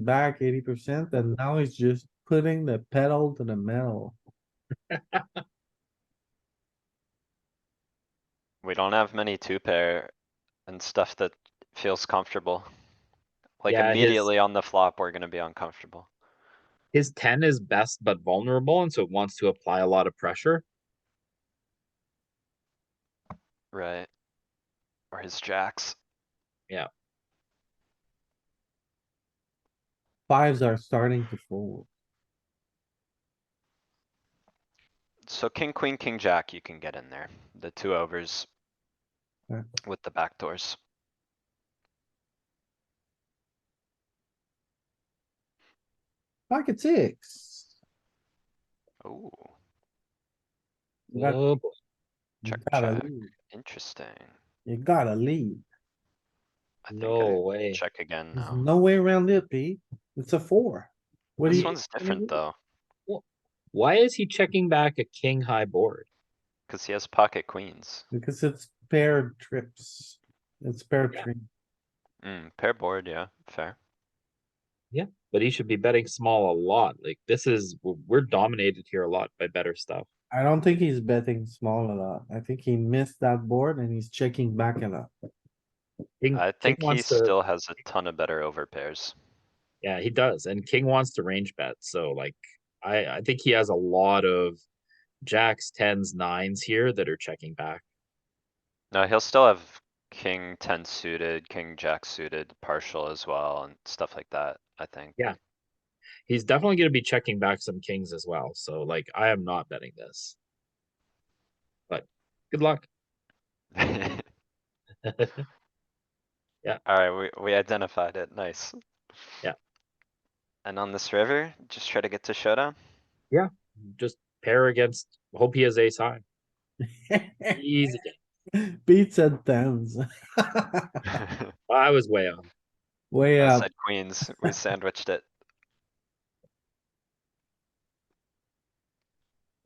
back eighty percent and now he's just putting the pedal to the metal. We don't have many two pair and stuff that feels comfortable. Like Yeah, his- immediately on the flop, we're gonna be uncomfortable. His ten is best but vulnerable, and so it wants to apply a lot of pressure. Right. Or his jacks. Fives are starting to fold. So king, queen, king, jack, you can get in there. The two overs. Yeah. With the back doors. Pocket six. Oh, You got- Oh, boy. You Check, gotta check. lead. interesting. You gotta lead. I think I no way. Check again There's now. no way around it, Pete. It's a four. What do This you? one's what do you different do? though, Why is he checking back a king high board? cuz he has pocket queens. Because it's paired trips. It's paired Yeah. tree. Mm, pair board, yeah, fair. But he should be betting small a lot. Like this is w- we're dominated here a lot by better stuff. I don't think he's betting small a lot. I think he missed that board and he's checking back a lot. King, Hmm, I King think he wants to- still has a ton of better over pairs. yeah, he does, and king wants to range bet. So like, I I think he has a lot of jacks, tens, nines here that are checking back. No, he'll still have king ten suited, king jack suited, partial as well and stuff like that, I think. Yeah. He's definitely going to be checking back some kings as well. So like, I am not betting this. But good luck. Yeah. Alright, we, we identified it, nice. Yeah. And on this river, just try to get to showdown? Just pair against. Hope he has ace high. Easy. game. Beats and tens. I I was way off. Way up. said queens, we sandwiched it.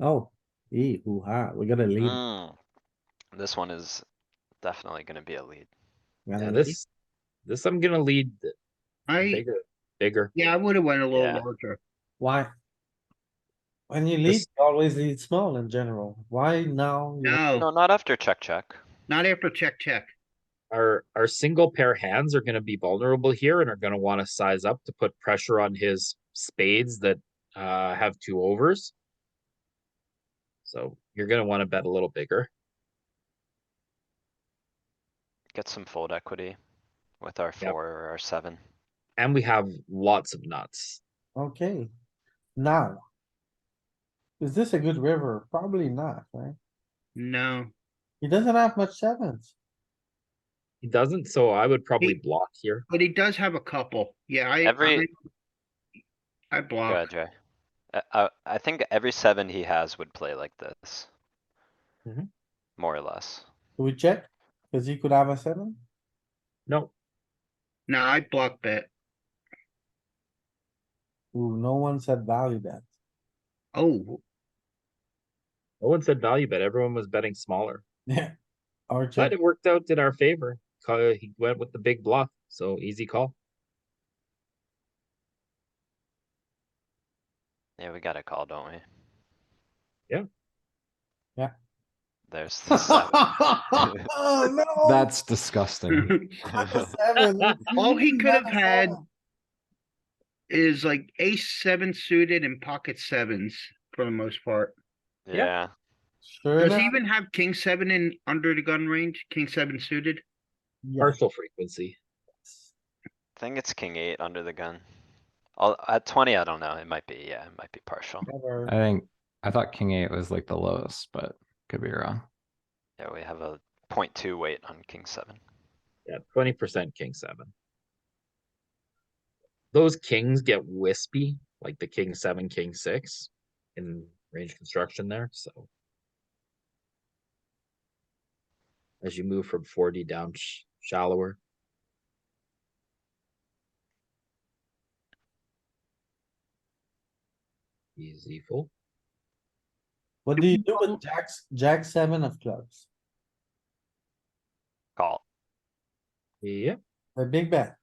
Oh, ee, hoo ha, we gotta lead. Mm. This one is definitely gonna be a lead. We gotta Yeah, lead. this this I'm gonna lead th- I, bigger, bigger. yeah, I would have went a Yeah. little larger. Why? When you lead, This- you always lead small in general. Why now? you- No, Oh. No, not after check, check. not after check, check. Our our single pair hands are gonna be vulnerable here and are gonna want to size up to put pressure on his spades that uh have two overs. So you're gonna want to bet a little bigger. Get some fold equity with our Yep. four or our seven. And we have lots of nuts. Okay, now. Is this a good river? Probably not, right? No, He doesn't have much sevens. He doesn't, so I would probably He- block here. but he does have a couple. Yeah, I. Every- I I Go block. ahead, Jay. I, I, Uh, I think every seven he has would play like this. Mhm. More or less. Do we check? Cause he could have a seven. No, No, I block bet. Ooh, no one said value bet. Oh, no one said value bet. Everyone was betting smaller. Yeah. Or But check, it worked out in our favor. Ca- He went with the big bluff, so easy call. Yeah, we got a call, don't we? Yeah. Yeah. There's the seven. Oh, no. That's disgusting. Not the seven. All he could have Not the had- seven. is like ace seven suited and pocket sevens for the most part. Yeah, Sure Does he enough, even have king seven in under the gun range? King seven suited? yes. Partial frequency. I think it's king eight under the gun. I'll, at twenty, I don't know. It might be, yeah, it might be partial. Never. I think, I thought king eight was like the lowest, but could be wrong. Yeah, we have a point two weight on king seven. Yeah, twenty percent king seven. Those kings get wispy, like the king seven, king six in range construction there, so. As you move from forty down sh- shallower, easy full. What do you do with jacks, jack seven of clubs? Call. Yeah, A big bet.